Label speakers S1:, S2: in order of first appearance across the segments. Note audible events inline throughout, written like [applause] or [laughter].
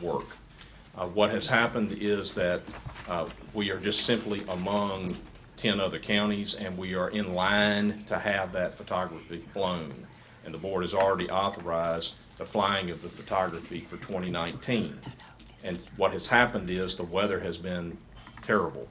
S1: work. Uh, What has happened is that uh, we are just simply among 10 other counties, and we are in line to have that photography flown. And the board has already authorized the flying of the photography for 2019. And what has happened is the weather has been terrible.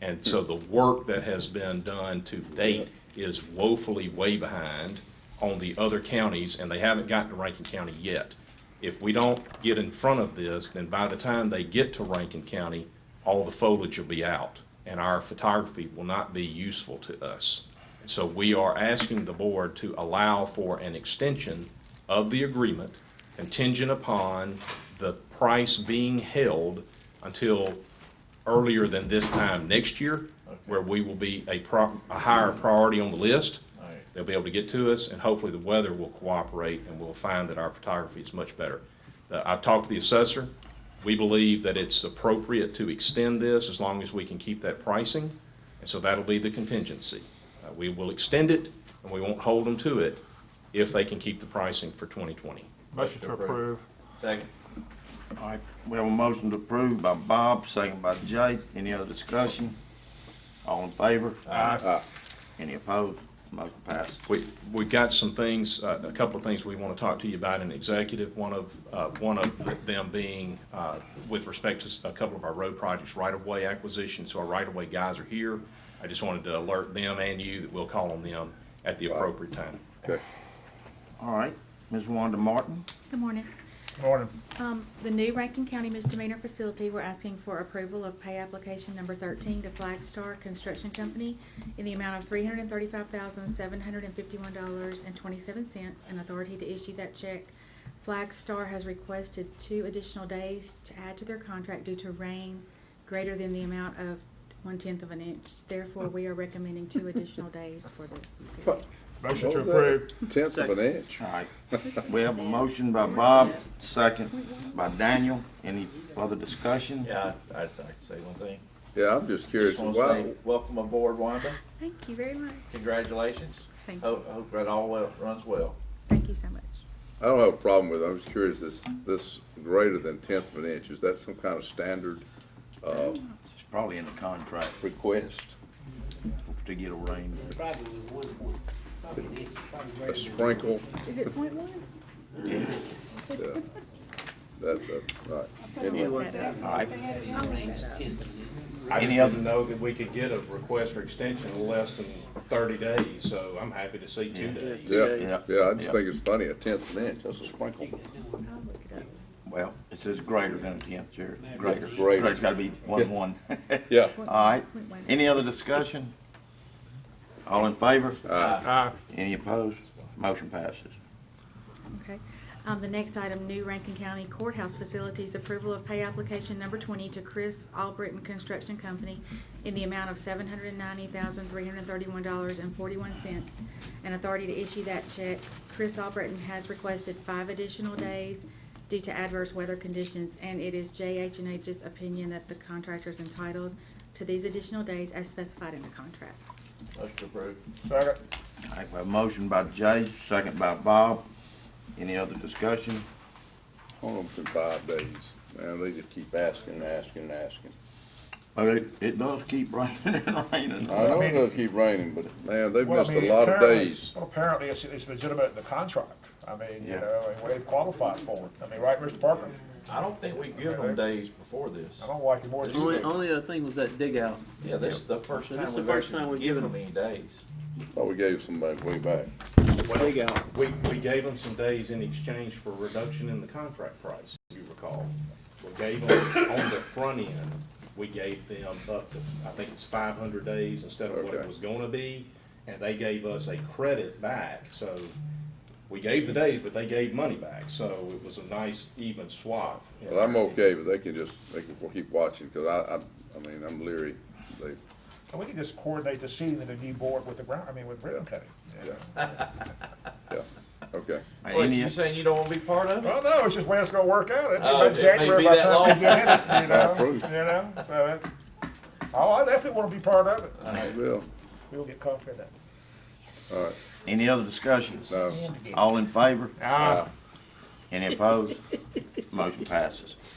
S1: And so the work that has been done to date is woefully way behind on the other counties, and they haven't gotten to Rankin County yet. If we don't get in front of this, then by the time they get to Rankin County, all the foliage will be out, and our photography will not be useful to us. So we are asking the board to allow for an extension of the agreement contingent upon the price being held until earlier than this time next year, where we will be a pro, a higher priority on the list.
S2: Alright.
S1: They'll be able to get to us, and hopefully the weather will cooperate, and we'll find that our photography is much better. Uh, I've talked to the assessor. We believe that it's appropriate to extend this as long as we can keep that pricing, and so that'll be the contingency. Uh, We will extend it, and we won't hold them to it if they can keep the pricing for 2020.
S2: Motion to approve.
S1: Second.
S3: All right, we have a motion to approve by Bob, second by Jay. Any other discussion? All in favor? Aye. Any opposed? Motion passes.
S1: We, we've got some things, uh, a couple of things we want to talk to you about in executive. One of, uh, one of them being uh, with respect to s- a couple of our road projects, right-of-way acquisition. So our right-of-way guys are here. I just wanted to alert them and you that we'll call on them at the appropriate time.
S4: Okay.
S3: All right, Ms. Wanda Martin,
S5: Good morning.
S2: Morning.
S5: Um, the new Rankin County misdemeanor facility, we're asking for approval of pay application number thirteen to Flagstar Construction Company in the amount of three hundred and thirty-five thousand, seven hundred and fifty-one dollars and twenty-seven cents and authority to issue that check. Flagstar has requested two additional days to add to their contract due to rain greater than the amount of one-tenth of an inch. Therefore, we are recommending two additional days for this. period.
S2: Motion to
S4: What was that?
S2: approve.
S4: Tenth of an inch.
S3: all right. We have a motion by Bob, second by Daniel. Any other discussion?
S6: Yeah, I- I'd like to say one thing.
S4: Yeah, I'm just curious,
S6: Just want to
S4: why,
S6: say, welcome aboard, Wanda.
S5: Thank you very much.
S6: Congratulations.
S5: Thank you.
S6: Hope, hope that all well- runs well.
S5: Thank you so much.
S4: I don't have a problem with it, I'm just curious, this, this greater than tenth of an inch, is that some kind of standard uh,
S3: It's probably in the contract
S4: request?
S3: to get a rain.
S7: Probably with one point, probably an inch, probably
S4: A
S7: greater than-
S4: sprinkle,
S5: Is it point one?
S4: yeah, that, that, right, anyway,
S3: All right,
S7: It rains tenth of an inch.
S1: I
S3: Any
S1: just
S3: other-
S1: didn't know that we could get a request for extension in less than 30 days, so I'm happy to see two days.
S4: yeah,
S3: Yeah.
S4: yeah, I just think it's funny, a tenth of an inch, that's a sprinkle.
S3: well, it says greater than a tenth, Jared. Greater.
S4: Greater.
S3: It's gotta be one, one. [laughs]
S4: Yeah,
S3: All right, any other discussion? All in favor?
S2: Aye.
S3: Any opposed? Motion passes.
S5: Okay. Um, the next item, new Rankin County Courthouse Facilities Approval of Pay Application Number Twenty to Chris Albritton Construction Company in the amount of seven hundred and ninety thousand, three hundred and thirty-one dollars and forty-one cents, and authority to issue that check. Chris Albritton has requested five additional days due to adverse weather conditions, and it is JH and H's opinion that the contractor is entitled to these additional days as specified in the contract.
S6: Motion approved.
S2: Second.
S3: All right, we have a motion by Jay, second by Bob. Any other discussion?
S4: hold them for five days, man, they just keep asking and asking and asking.
S3: Well, it, it does keep raining and raining.
S4: I know it
S2: mean-
S4: does keep raining, but man, they've
S2: Well, I
S4: missed a
S2: mean,
S4: lot of
S2: apparently-
S4: days.
S2: Well, apparently, it's, it's legitimate in the contract. I mean, you
S3: Yeah.
S2: know, and they've qualified for it. I mean, right, Mr. Parker?
S6: I don't think we give them days before this.
S2: I don't like it more than you
S8: Only,
S2: do.
S8: only other thing was that dig out.
S6: Yeah, this is the first
S8: So
S6: time
S8: this is the
S6: we've
S8: first time
S6: actually
S8: we've
S6: given them
S8: given
S6: any days.
S4: Thought we gave somebody way back.
S8: Dig out.
S1: We, we gave them some days in exchange for reduction in the contract price, if you recall. We gave them, on the front end, we gave them up to, I think it's five hundred days instead of what it
S4: Okay.
S1: was gonna be, and they gave us a credit back, so we gave the days, but they gave money back, so it was a nice even swap.
S4: Well, I'm okay, but they can just, they can keep watching, because I, I, I mean, I'm leery. They,
S2: And we can just coordinate the seating of the new board with the ground, I mean, with ribbon cutting. you know.
S4: yeah, okay.
S6: What,
S3: Any,
S6: you saying you don't want to be part of it?
S2: Well, no, it's just when it's gonna work out. It'll
S6: Oh,
S2: be about
S6: it may
S2: January
S6: be
S2: by the
S6: that
S2: time we
S6: long.
S2: get in it, you
S4: [laughs]
S2: know, you
S4: Approved.
S2: know, so it, oh, I definitely wanna be part of it.
S4: Well,
S2: We'll get comfortable in that.
S4: all right,
S3: any other discussion?
S4: no,
S3: All in favor?
S2: Ah,
S3: Any opposed? Motion passes.